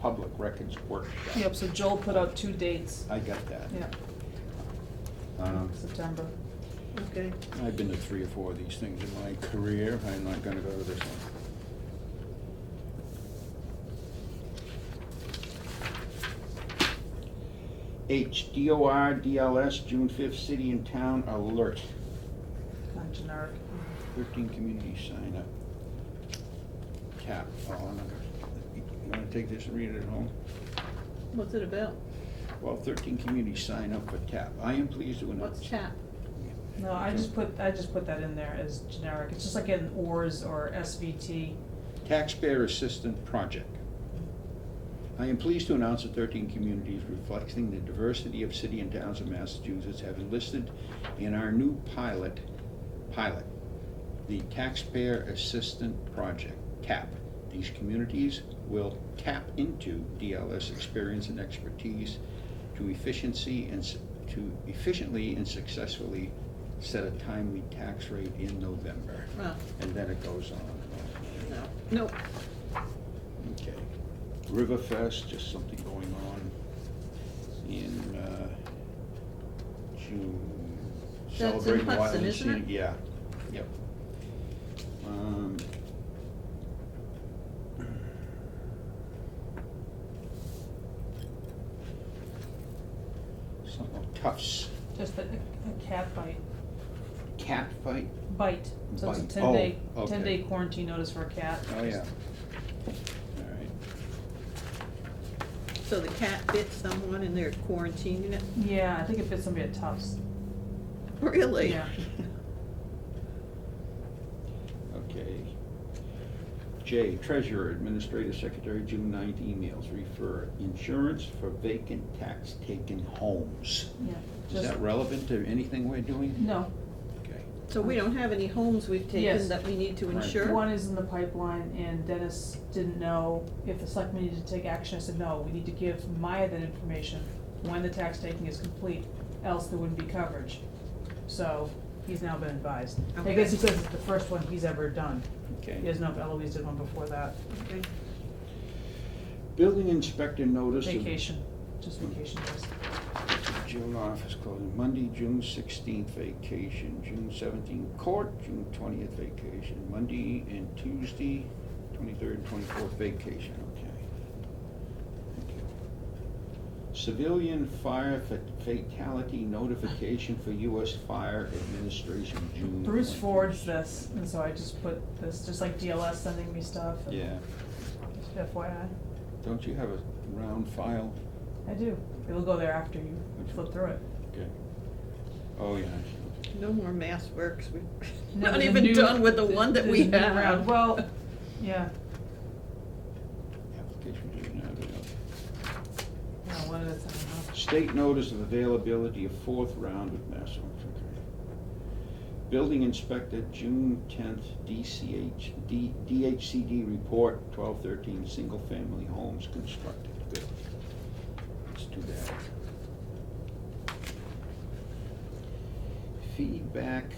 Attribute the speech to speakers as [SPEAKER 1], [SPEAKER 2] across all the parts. [SPEAKER 1] public records workshop.
[SPEAKER 2] Yep, so Joel put out two dates,
[SPEAKER 1] I got that.
[SPEAKER 2] yeah,
[SPEAKER 1] Um,
[SPEAKER 2] September.
[SPEAKER 3] Okay.
[SPEAKER 1] I've been to three or four of these things in my career, I'm not gonna go to this one. H, DOR, DLS, June fifth, city and town alert,
[SPEAKER 2] Kind of generic.
[SPEAKER 1] thirteen communities sign up. Cap, oh, I'm not gonna- you wanna take this and read it at home?
[SPEAKER 3] What's it about?
[SPEAKER 1] Well, thirteen communities sign up for TAP, I am pleased to announce.
[SPEAKER 3] What's chat?
[SPEAKER 2] No, I just put, I just put that in there as generic, it's just like an ORS or SVT.
[SPEAKER 1] Taxpayer Assistant Project. I am pleased to announce that thirteen communities reflecting the diversity of city and towns of Massachusetts have enlisted in our new pilot, pilot, the Taxpayer Assistant Project, TAP. These communities will tap into DLS experience and expertise to efficiency and, s- to efficiently and successfully set a timely tax rate in November.
[SPEAKER 3] Oh,
[SPEAKER 1] And then it goes on and on.
[SPEAKER 3] no. Nope.
[SPEAKER 1] Okay. Riverfest, just something going on in uh, June.
[SPEAKER 3] That's in
[SPEAKER 1] Celebrating
[SPEAKER 3] Hudson,
[SPEAKER 1] Wild and
[SPEAKER 3] isn't it?
[SPEAKER 1] Scenic- Yeah, yep. Um, Something Tufts
[SPEAKER 2] Just a, a cat bite,
[SPEAKER 1] cat fight.
[SPEAKER 2] bite, so it's a
[SPEAKER 1] Bite.
[SPEAKER 2] ten day,
[SPEAKER 1] Oh, okay.
[SPEAKER 2] ten day quarantine notice for a cat.
[SPEAKER 1] Oh, yeah. All right.
[SPEAKER 3] So the cat bit someone and they're quarantining it?
[SPEAKER 2] Yeah, I think it bit somebody at Tufts.
[SPEAKER 3] Really?
[SPEAKER 2] Yeah.
[SPEAKER 1] Okay. J, Treasurer, Administrative Secretary, June ninth emails refer insurance for vacant tax taken homes.
[SPEAKER 2] Yeah.
[SPEAKER 1] Is
[SPEAKER 2] just- Mm-hmm.
[SPEAKER 1] that relevant to anything we're doing?
[SPEAKER 2] No,
[SPEAKER 1] Okay.
[SPEAKER 3] So we don't have any homes we've
[SPEAKER 2] Yes.
[SPEAKER 3] taken that we need to
[SPEAKER 1] Right.
[SPEAKER 3] insure?
[SPEAKER 2] one is in the pipeline and Dennis didn't know if the selectmen needed to take action, I said, no, we need to give Maya that information when the tax taking is complete, else there wouldn't be coverage. So, he's now been advised. I
[SPEAKER 3] Okay.
[SPEAKER 2] guess he says it's the first one he's ever done, he
[SPEAKER 1] Okay.
[SPEAKER 2] doesn't know if Eloise did one before that,
[SPEAKER 3] Okay.
[SPEAKER 1] Building inspector notice of
[SPEAKER 2] vacation, just vacation days.
[SPEAKER 1] June office closing, Monday, June sixteenth vacation, June seventeenth court, June twentieth vacation, Monday and Tuesday, twenty-third and twenty-fourth vacation, okay. Civilian fire fa- fatality notification for US Fire Administration, June.
[SPEAKER 2] Bruce
[SPEAKER 1] 20th.
[SPEAKER 2] forwards this, and so I just put this, just like DLS sending me stuff, and
[SPEAKER 1] Yeah,
[SPEAKER 2] just FYI,
[SPEAKER 1] don't you have a round file?
[SPEAKER 2] I do, it'll go there after you flip through it.
[SPEAKER 1] Okay. Oh, yeah, I see.
[SPEAKER 3] No more mass works. We're
[SPEAKER 2] No,
[SPEAKER 3] not
[SPEAKER 2] there's a
[SPEAKER 3] even
[SPEAKER 2] new-
[SPEAKER 3] done with the one that
[SPEAKER 2] there's
[SPEAKER 3] we
[SPEAKER 2] a new round.
[SPEAKER 3] have.
[SPEAKER 2] Well, yeah,
[SPEAKER 1] application didn't have it up.
[SPEAKER 2] no, one at a time, huh?
[SPEAKER 1] State notice of availability of fourth round with Mass Electric. Building inspector, June tenth, DCH, D- DHCD report, twelve thirteen, single family homes constructed. Good. Let's do that. Feedback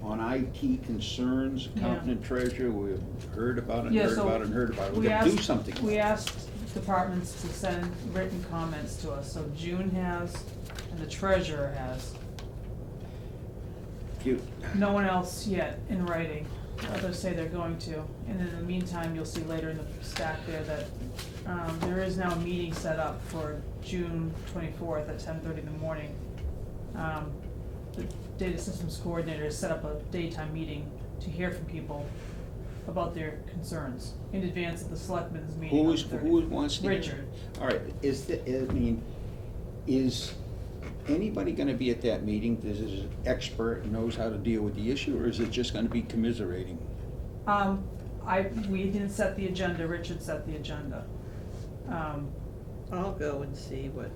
[SPEAKER 1] on IT concerns, accountant
[SPEAKER 2] Yeah.
[SPEAKER 1] and treasurer, we've heard about it,
[SPEAKER 2] Yeah,
[SPEAKER 1] heard
[SPEAKER 2] so
[SPEAKER 1] about it, and heard about it.
[SPEAKER 2] we
[SPEAKER 1] We're gonna do
[SPEAKER 2] asked-
[SPEAKER 1] something.
[SPEAKER 2] We asked departments to send written comments to us, so June has, and the treasurer has.
[SPEAKER 1] You-
[SPEAKER 2] No one else yet in writing, others say they're going to. And in the meantime, you'll see later in the stack there that, um, there is now a meeting set up for June twenty-fourth at ten thirty in the morning. Um, the data systems coordinator has set up a daytime meeting to hear from people about their concerns in advance of the selectmen's meeting on
[SPEAKER 1] Who
[SPEAKER 2] the
[SPEAKER 1] is,
[SPEAKER 2] 30th.
[SPEAKER 1] who is wants to? hear?
[SPEAKER 2] Richard.
[SPEAKER 1] All right, is the, I mean, is anybody gonna be at that meeting, this is an expert, knows how to deal with the issue, or is it just gonna be commiserating?
[SPEAKER 2] Um, I, we didn't set the agenda, Richard set the agenda. Um,
[SPEAKER 3] I'll go and see what,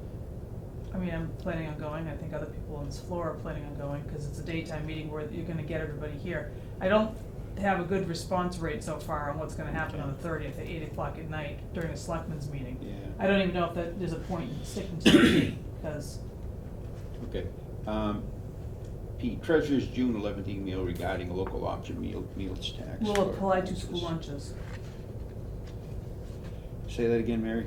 [SPEAKER 2] I mean, I'm planning on going, I think other people on this floor are planning on going, cause it's a daytime meeting where you're gonna get everybody here. I don't have a good response rate so far on what's gonna happen on the thirtieth at eight o'clock at night during a selectmen's meeting. I
[SPEAKER 1] Yeah,
[SPEAKER 2] don't even know if that, there's a point in sticking to the date, cause,
[SPEAKER 1] okay. Um, P, Treasurer's June eleventh email regarding local option meal, meals tax.
[SPEAKER 2] we'll
[SPEAKER 1] for
[SPEAKER 2] apply to
[SPEAKER 1] lunches.
[SPEAKER 2] school lunches.
[SPEAKER 1] Say that again, Mary?